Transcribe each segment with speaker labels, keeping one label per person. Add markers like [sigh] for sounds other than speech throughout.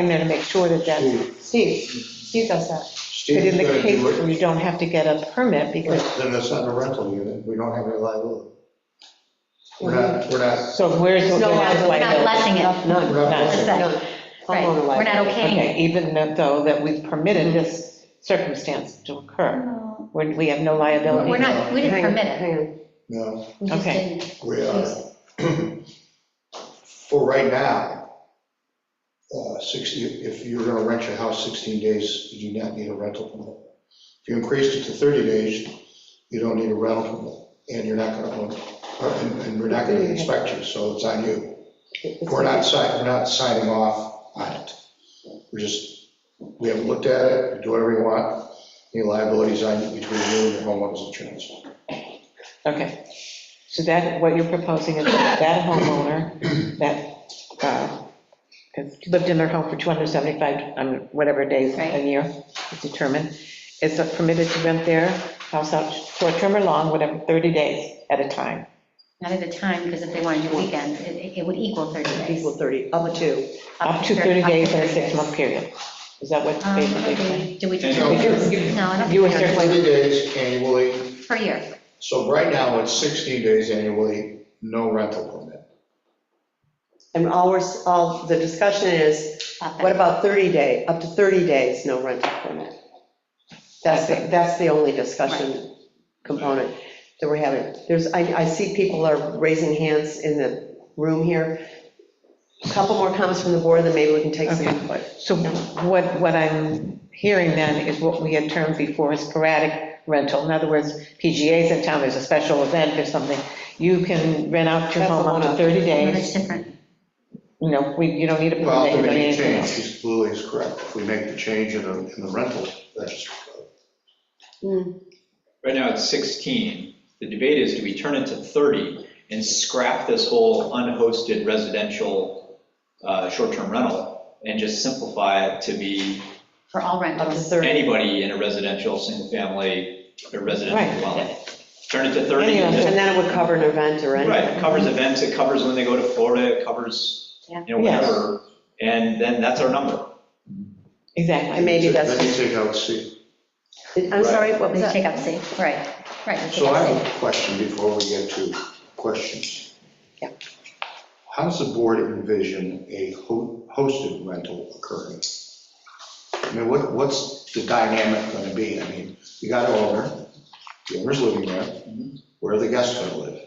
Speaker 1: in there to make sure that that, Steve, Steve does that. But
Speaker 2: Steve's
Speaker 1: in
Speaker 2: gonna
Speaker 1: the case
Speaker 2: do
Speaker 1: where
Speaker 2: it.
Speaker 1: you don't have to get a permit because,
Speaker 2: Then it's not a rental unit, we don't have any liability. We're not, we're not,
Speaker 1: so where's the
Speaker 3: No,
Speaker 1: where's the
Speaker 3: we're not
Speaker 1: liability?
Speaker 3: blessing it.
Speaker 1: None,
Speaker 2: we're
Speaker 1: none.
Speaker 2: not
Speaker 3: That's
Speaker 2: renting.
Speaker 3: it.
Speaker 1: none.
Speaker 3: Right,
Speaker 1: Homeowner
Speaker 3: we're not
Speaker 1: liability.
Speaker 3: okaying
Speaker 1: Okay, Even that though, that we've permitted this circumstance to occur,
Speaker 3: No,
Speaker 1: where we have no liability.
Speaker 3: We're not, we didn't
Speaker 4: Hang on,
Speaker 3: permit it.
Speaker 4: hang on.
Speaker 2: No,
Speaker 3: We just
Speaker 1: Okay.
Speaker 3: didn't
Speaker 2: we are,
Speaker 3: use it.
Speaker 2: [clears throat] for right now, uh, 60, if you're gonna rent your house 16 days, you do not need a rental permit. If you increased it to 30 days, you don't need a rental permit, and you're not gonna own, it, and- and we're not gonna inspect you, so it's on you. We're not signing, we're not signing off on it. We're just, we haven't looked at it, we do whatever you want, any liabilities on you between you and your homeowner's insurance.
Speaker 1: Okay, so that, what you're proposing is that homeowner that uh, has lived in their home for 275, um, whatever days
Speaker 3: Right.
Speaker 1: a year is determined, is permitted to rent their house out short-term or long, whatever, 30 days at a time.
Speaker 3: Not at a time, because if they wanted to do weekends, it it would equal 30 days.
Speaker 4: Equal 30, up to.
Speaker 1: Up to 30 days in a six-month period. Is that what
Speaker 3: Um,
Speaker 1: basically? saying?
Speaker 3: Do we?
Speaker 5: And-
Speaker 3: No, I don't
Speaker 1: You
Speaker 3: think
Speaker 1: were circling,
Speaker 2: 30 days annually,
Speaker 3: per year.
Speaker 2: So right now, it's 16 days annually, no rental permit.
Speaker 4: And all we're, all, the discussion is,
Speaker 3: uh,
Speaker 4: what about 30 day, up to 30 days, no rental permit? That's, the- that's the only discussion component that we're having. There's, I, I see people are raising hands in the room here. A Couple more comments from the board, then maybe we can take some
Speaker 1: Okay.
Speaker 4: input.
Speaker 1: so what, what I'm hearing then is what we had termed before as sporadic rental. In other words, PGA's in town, there's a special event or something, you can rent out your
Speaker 4: That's
Speaker 1: home
Speaker 4: the
Speaker 1: up to
Speaker 4: one up.
Speaker 1: 30
Speaker 3: No,
Speaker 1: days.
Speaker 3: That's different.
Speaker 1: You know, we, you don't need a permit.
Speaker 2: Well,
Speaker 1: you
Speaker 2: if we
Speaker 1: don't need
Speaker 2: make a
Speaker 1: anything
Speaker 2: change,
Speaker 1: else.
Speaker 2: she's- Lily is correct. If we make the change in the, in the rental, that's,
Speaker 5: Right now, it's 16. The debate is, do we turn it to 30 and scrap this whole unhosted residential uh, short-term rental and just simplify it to be
Speaker 3: For all
Speaker 4: Up to
Speaker 3: rentals.
Speaker 4: 30.
Speaker 5: anybody in a residential, single-family, or residential
Speaker 1: Right.
Speaker 5: dwelling? Turn it to 30. and
Speaker 1: Anyone.
Speaker 4: And
Speaker 5: just-
Speaker 4: then it would cover an event or anything.
Speaker 5: Right, it covers events, it covers when they go to Florida, it covers,
Speaker 3: Yeah.
Speaker 5: you know,
Speaker 1: Yes.
Speaker 5: whatever. And then that's our number.
Speaker 4: And
Speaker 1: Exactly.
Speaker 4: maybe that's,
Speaker 2: then you take out C.
Speaker 4: I'm sorry, what was
Speaker 3: We
Speaker 4: that?
Speaker 3: take up C, right, right. we take
Speaker 2: So
Speaker 3: up
Speaker 2: I
Speaker 3: C.
Speaker 2: have a question before we get to questions.
Speaker 1: Yeah.
Speaker 2: How does the board envision a ho- hosted rental occurring? I mean, what, what's the dynamic gonna be? I mean, you got an owner, the owner's living there,
Speaker 3: Mm-hmm.
Speaker 2: where are the guests gonna live?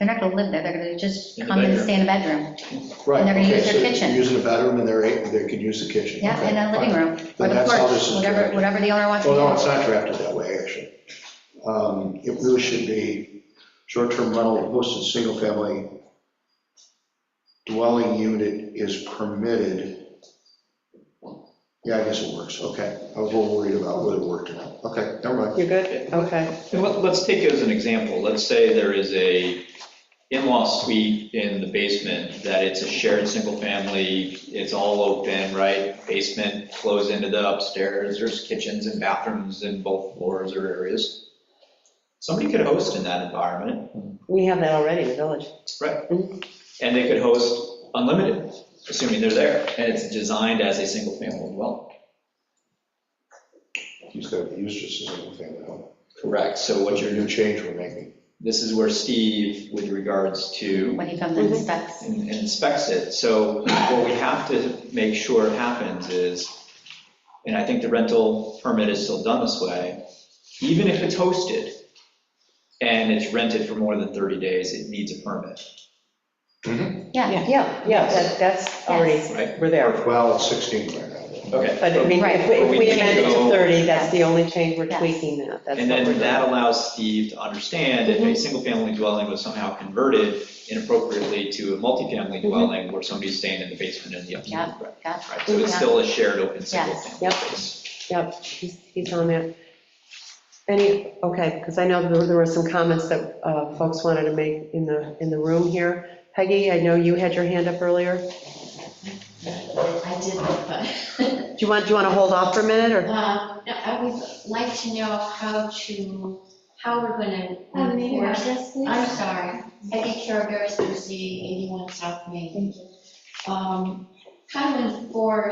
Speaker 3: They're not going to live there, they're going to just
Speaker 5: In the
Speaker 3: come and
Speaker 5: bedroom.
Speaker 3: stay in a bedroom.
Speaker 2: Right.
Speaker 3: And they're gonna
Speaker 2: okay,
Speaker 3: use their
Speaker 2: so they're
Speaker 3: kitchen.
Speaker 2: Using a bedroom and they're, a- they can use the kitchen.
Speaker 3: Yeah,
Speaker 2: okay,
Speaker 3: in a living
Speaker 2: fine.
Speaker 3: room, or
Speaker 2: Then
Speaker 3: the
Speaker 2: that's how this
Speaker 3: porch,
Speaker 2: is
Speaker 3: whatever,
Speaker 2: drafted.
Speaker 3: whatever the owner wants to do.
Speaker 2: Well, no, it's not drafted that way, actually. Um, It really should be short-term rental of hosted single-family dwelling unit is permitted. Yeah, I guess it works, okay. I was a little worried about whether it worked or not. Okay, never mind.
Speaker 4: You're good? Okay.
Speaker 5: And let- Let's take it as an example, let's say there is a in-law suite in the basement, that it's a shared single-family, it's all open, right? Basement flows into the upstairs, there's kitchens and bathrooms in both floors or areas. Somebody could host in that environment,
Speaker 4: We have that already in the village.
Speaker 5: right? And they could host unlimited, assuming they're there, and it's designed as a single-family dwelling.
Speaker 2: He's got to use just a single-family home.
Speaker 5: Correct. So what
Speaker 2: What's your
Speaker 5: you're,
Speaker 2: new change we're making?
Speaker 5: this is where Steve, with regards to
Speaker 3: When he comes and inspects.
Speaker 5: and and inspects it. So what we have to make sure happens is, and I think the rental permit is still done this way, even if it's hosted and it's rented for more than 30 days, it needs a permit,
Speaker 3: Yeah,
Speaker 4: Yeah, yeah, that- that's already,
Speaker 5: right?
Speaker 4: we're there.
Speaker 2: Well, it's 16 right now.
Speaker 4: But I
Speaker 5: Okay.
Speaker 4: mean, if we- if we amend it to 30, that's the only change we're
Speaker 3: Yes.
Speaker 4: tweaking that. That's
Speaker 5: And
Speaker 4: what we're
Speaker 5: then that
Speaker 4: doing. Mm-hmm.
Speaker 5: allows Steve to understand if a single-family dwelling was somehow converted inappropriately to a multifamily
Speaker 4: Mm-hmm.
Speaker 5: dwelling where somebody's staying in the basement and the upstairs.
Speaker 3: Yeah. yeah.
Speaker 5: Right, so it's
Speaker 3: Yeah.
Speaker 5: still a shared open single-family
Speaker 4: Yep.
Speaker 5: space.
Speaker 4: Yep, he's he's on that. Any, okay, because I know there there were some comments that uh, folks wanted to make in the, in the room here. Peggy, I know you had your hand up earlier. Do
Speaker 6: I did, but, [laughs]
Speaker 4: you want, do you want to hold off for a minute, or?
Speaker 6: um, no, I would like to know how to, how we're gonna
Speaker 7: Um, maybe not
Speaker 6: enforce.
Speaker 7: this week.
Speaker 6: I'm sorry, Peggy Carragher, C, 81 South Main. Um, how to enforce